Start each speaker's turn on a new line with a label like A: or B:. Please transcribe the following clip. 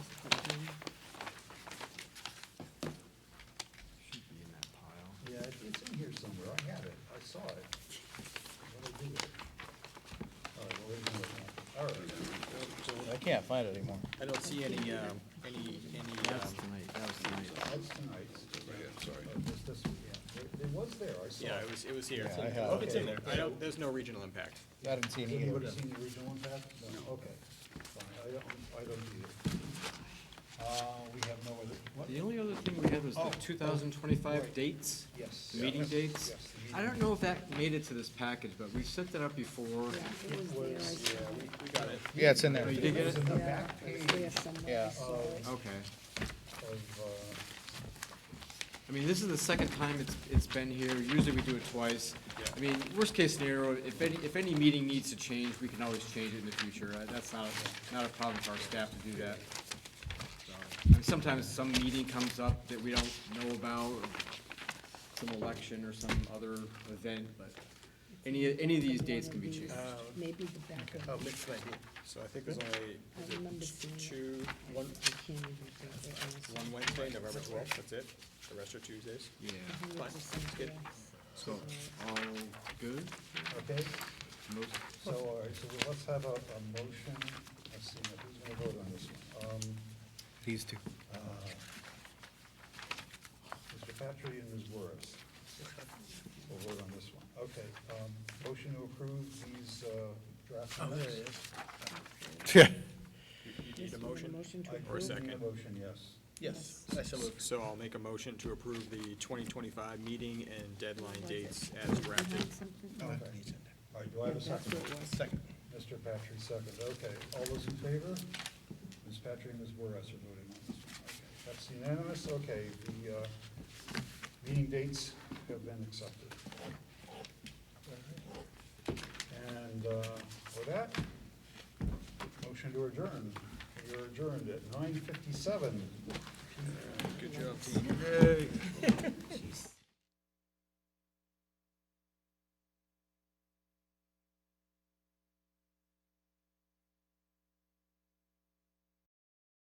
A: can't find it anymore.
B: I don't see any, um, any, any, um,
C: That's tonight's. It's this one, yeah. It- It was there, I saw.
B: yeah,
C: it.
B: it was, it was here.
A: Yeah, I have
B: It's
A: it.
B: in there. I don't, there's no regional impact.
A: I didn't see
C: Has
A: any either.
C: Anybody seen the original one, Pat? No, okay. Fine, I don't, I don't either. Uh, we have no other, what?
D: The only other thing we had was
C: Oh,
D: the
C: oh,
D: two thousand twenty-five
C: right.
D: dates,
C: Yes.
D: the meeting
C: Yes,
D: dates.
C: yes, the
D: I
C: meeting
D: don't know if that made it to this package, but we've set that up before.
E: It was there, I
C: dates.
E: saw
C: Yeah, we-
B: We got it.
A: Yeah, it's in
D: Oh,
A: there.
D: you did get it?
C: in the
E: Yeah,
C: back
E: it was
C: page
E: there somewhere,
A: Yeah.
E: I saw it.
D: Okay.
C: of, uh,
D: I mean, this is the second time it's, it's been here. Usually we do it twice.
B: Yeah.
D: I mean, worst case scenario, if any, if any meeting needs to change, we can always change it in the future. Uh, That's not, not a problem for our staff to do that. So, I mean, Sometimes some meeting comes up that we don't know about, or some election or some other event, but any, any of these dates can be changed.
E: Uh, Maybe the back of,
B: Oh, mixed idea. So I think there's only,
E: I remember
B: is it
E: seeing it.
B: two,
E: I
B: one,
E: I can't even think where else.
B: one Wednesday, November twelfth, that's it. The rest are Tuesdays.
D: Yeah,
E: Maybe it
B: fine,
E: was
B: it's good.
E: somewhere else.
D: so, all good?
C: Okay,
D: Most,
C: so, all right, so let's have a, a motion. Let's see, now, who's gonna vote on this one? Um,
A: These two.
C: uh, Mr. Patry and Ms. Wertz. We'll vote on this one. Okay, um, motion to approve these, uh, draft minutes.
B: You need
E: Just
B: a
E: want
B: motion?
E: Motion to
C: I
B: Or a
E: approve.
C: approve the
B: second.
C: motion, yes.
E: Yes.
B: So I'll make a motion to approve the twenty twenty-five meeting and deadline dates as
E: You
B: drafted.
E: had something?
C: Okay. All right, do I have a
E: That's
C: second?
E: what it was.
B: Second.
C: Mr. Patry, second, okay. All those in favor? Ms. Patry and Ms. Juarez are voting on this one. Okay, That's unanimous, okay. The uh, meeting dates have been accepted. And uh, for that, motion to adjourn. We are adjourned at nine fifty-seven.
B: Good job, team.